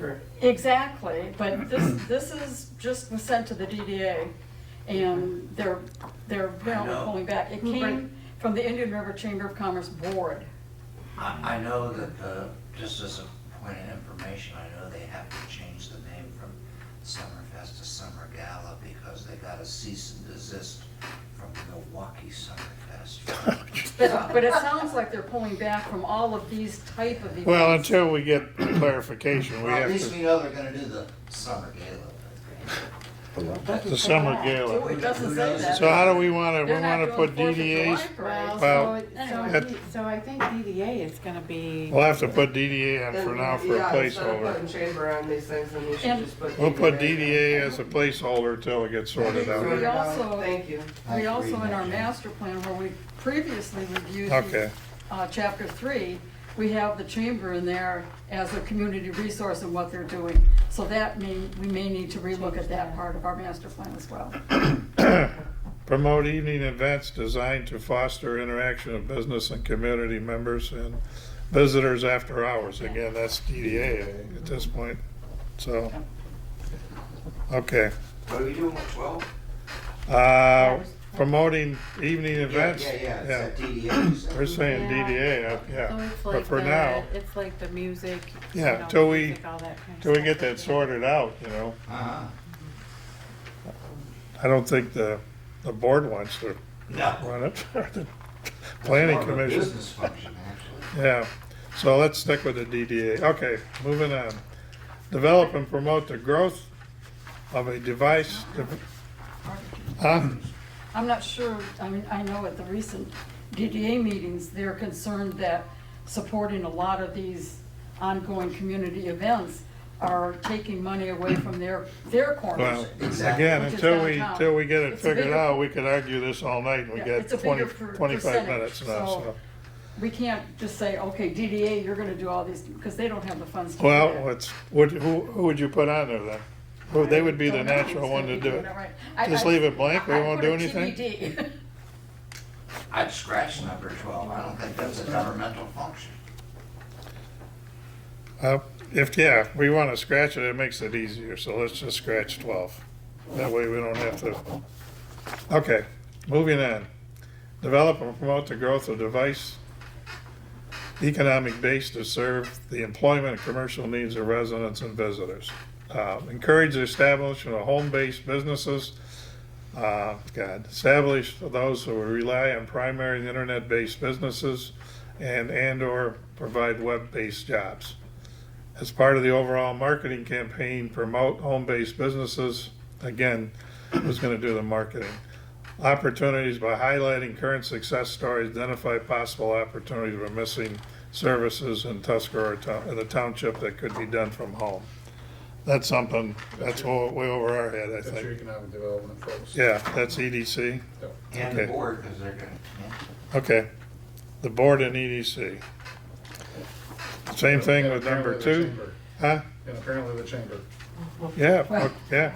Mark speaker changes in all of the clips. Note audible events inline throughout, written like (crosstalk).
Speaker 1: September.
Speaker 2: Exactly, but this, this is just was sent to the DDA, and they're, they're apparently
Speaker 1: know.
Speaker 2: pulling back. It
Speaker 3: Right.
Speaker 2: came from the Indian River Chamber of Commerce Board.
Speaker 1: I, I know that the, just as a point of information, I know they have to change the name from Summerfest to Summer Gala because they got a cease and desist from Milwaukee
Speaker 4: (laughs)
Speaker 1: Summerfest.
Speaker 2: But, but it sounds like they're pulling back from all of these type of events.
Speaker 4: Well, until we get clarification, we
Speaker 1: Well, at
Speaker 4: have
Speaker 1: least we
Speaker 4: to,
Speaker 1: know they're gonna do the Summer Gala.
Speaker 4: the summer
Speaker 2: Well,
Speaker 4: gala.
Speaker 2: It doesn't say that.
Speaker 4: So how do we wanna, we
Speaker 2: They're not
Speaker 4: wanna
Speaker 2: doing
Speaker 4: put
Speaker 2: Fourth of July
Speaker 4: DDAs,
Speaker 2: parades.
Speaker 3: Well,
Speaker 4: Well,
Speaker 3: so, it- so,
Speaker 4: anyway.
Speaker 3: I think- so I think DDA is gonna be.
Speaker 4: we'll have to put DDA on for
Speaker 5: And,
Speaker 4: now for a
Speaker 5: yeah, instead of
Speaker 4: placeholder.
Speaker 5: putting Chamber on these things, then we should
Speaker 2: And-
Speaker 5: just put.
Speaker 4: We'll put DDA as a placeholder till it gets sorted out.
Speaker 5: Sort it out.
Speaker 2: We also-
Speaker 5: uh, Thank you.
Speaker 2: We
Speaker 1: Nice
Speaker 2: also,
Speaker 1: reading,
Speaker 2: in our
Speaker 1: Jim.
Speaker 2: master plan, where we previously reviewed
Speaker 4: Okay.
Speaker 2: uh, chapter three, we have the chamber in there as a community resource and what they're doing. So that may, we may need to relook at that part of our master plan as well.
Speaker 4: Promote evening events designed to foster interaction of business and community members and visitors after hours. Again, that's DDA at this point, so. Okay,
Speaker 1: What are we doing with twelve?
Speaker 4: uh, promoting evening events.
Speaker 1: Yeah, yeah, yeah, it's at DDA, you said.
Speaker 4: We're saying
Speaker 3: Yeah.
Speaker 4: DDA, uh,
Speaker 3: So
Speaker 4: yeah,
Speaker 3: it's
Speaker 4: but
Speaker 3: like
Speaker 4: for
Speaker 3: the-
Speaker 4: now,
Speaker 3: It's like the music. you
Speaker 4: Yeah,
Speaker 3: know,
Speaker 4: till we-
Speaker 3: music, all that kind of
Speaker 4: till we
Speaker 3: stuff.
Speaker 4: get that sorted out, you know,
Speaker 1: Uh-huh.
Speaker 4: I don't think the, the board wants to
Speaker 1: No.
Speaker 4: run it, (laughs) or the planning
Speaker 1: It's more of a
Speaker 4: commission.
Speaker 1: Business function, actually.
Speaker 4: Yeah, so let's stick with the DDA. Okay, moving on. Develop and promote the growth of a device, um, de- huh?
Speaker 2: I'm not sure, I mean, I know at the recent DDA meetings, they're concerned that supporting a lot of these ongoing community events are taking money away from their, their
Speaker 4: Well,
Speaker 2: corners.
Speaker 1: Exactly.
Speaker 4: again,
Speaker 2: Which is
Speaker 4: until we,
Speaker 2: downtown.
Speaker 4: until we get it
Speaker 2: It's a
Speaker 4: figured
Speaker 2: bigger-
Speaker 4: out, we could argue this all night, and we
Speaker 2: Yeah,
Speaker 4: got
Speaker 2: it's a
Speaker 4: twenty,
Speaker 2: bigger per-
Speaker 4: twenty-five
Speaker 2: percentage,
Speaker 4: minutes now,
Speaker 2: so-
Speaker 4: so.
Speaker 2: We can't just say, okay, DDA, you're gonna do all these, because they don't have the funds to do that.
Speaker 4: Well, it's, what, who, who would you put on there then? Who, they would be the
Speaker 2: Don't know.
Speaker 4: natural one to do it.
Speaker 2: All right. I-
Speaker 4: Just
Speaker 2: I-
Speaker 4: leave it blank, we
Speaker 2: I
Speaker 4: won't
Speaker 2: put
Speaker 4: do
Speaker 2: a
Speaker 4: anything?
Speaker 2: (laughs) TBD.
Speaker 1: I'd scratch number twelve, I don't think that's a governmental function.
Speaker 4: Uh, If, yeah, we wanna scratch it, it makes it easier, so let's just scratch twelve. That way we don't have to. Okay, moving on. Develop and promote the growth of device economic base to serve the employment and commercial needs of residents and visitors. Uh, Encourage the establishment of home-based businesses. Uh, God, establish for those who rely on primary and internet-based businesses and and/or provide web-based jobs. As part of the overall marketing campaign, promote home-based businesses. Again, who's going to do the marketing? Opportunities by highlighting current success stories, identify possible opportunities for missing services in Tuscarora, town- in the township that could be done from home. That's something, that's wa- way over our head, I
Speaker 6: That's your
Speaker 4: think.
Speaker 6: economic development folks.
Speaker 4: Yeah, that's E EDC.
Speaker 1: And the
Speaker 4: Okay.
Speaker 1: board, because they're gonna, yeah.
Speaker 4: Okay. The board and EDC. Same thing
Speaker 6: And
Speaker 4: with number
Speaker 6: apparently
Speaker 4: two,
Speaker 6: the chamber.
Speaker 4: huh?
Speaker 6: And apparently the chamber.
Speaker 4: Yeah, o- yeah,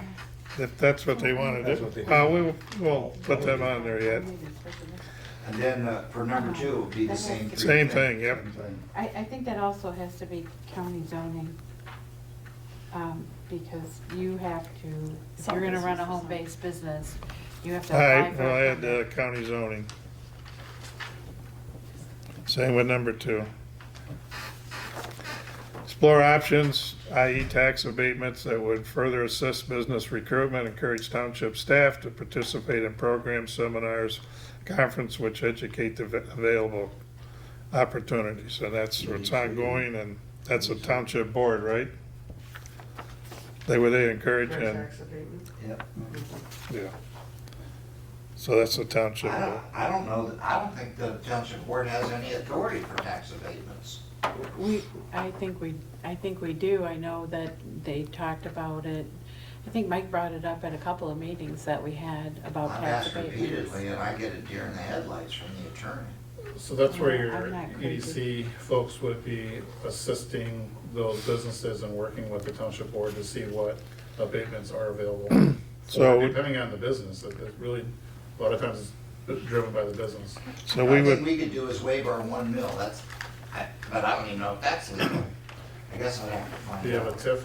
Speaker 4: if that's what they want to do. Uh, we will- we'll put them on there yet.
Speaker 1: And then uh, for number two, it would be the same. three
Speaker 4: Same thing, yep.
Speaker 1: Same thing.
Speaker 3: I, I think that also has to be county zoning. Um, because you have to, if you're gonna run a home-based business, you have to
Speaker 4: All
Speaker 3: apply
Speaker 4: right,
Speaker 3: for.
Speaker 4: we'll
Speaker 3: a
Speaker 4: add uh,
Speaker 3: permit.
Speaker 4: county zoning. Same with number two. Explore options, i.e. tax abatements that would further assist business recruitment, encourage township staff to participate in programs, seminars, conference which educate the va- available opportunities. And that's what's ongoing and that's a township board, right? They would they encourage
Speaker 5: For
Speaker 4: and,
Speaker 5: tax abatement.
Speaker 1: Yep.
Speaker 4: yeah. So that's the township
Speaker 1: I
Speaker 4: board.
Speaker 1: don't, I don't know, that- I don't think the township board has any authority for tax abatements.
Speaker 3: We, I think we, I think we do, I know that they talked about it, I think Mike brought it up at a couple of meetings that we had about
Speaker 1: I've
Speaker 3: tax
Speaker 1: asked
Speaker 3: abatements.
Speaker 1: repeatedly and I get a deer in the headlights from the attorney.
Speaker 6: So that's where your
Speaker 3: I'm not crazy.
Speaker 6: EDC folks would be assisting those businesses and working with the township board to see what abatements are
Speaker 4: (clears throat)
Speaker 6: available.
Speaker 4: So-
Speaker 6: Or Depending on the business, it it really, a lot of times it's driven by the business.
Speaker 4: So we
Speaker 1: All
Speaker 4: would,
Speaker 1: we could do is waive our one mil, that's, I- but I don't even know if that's legal. I guess I'd have to find out.
Speaker 6: Do you have a TIF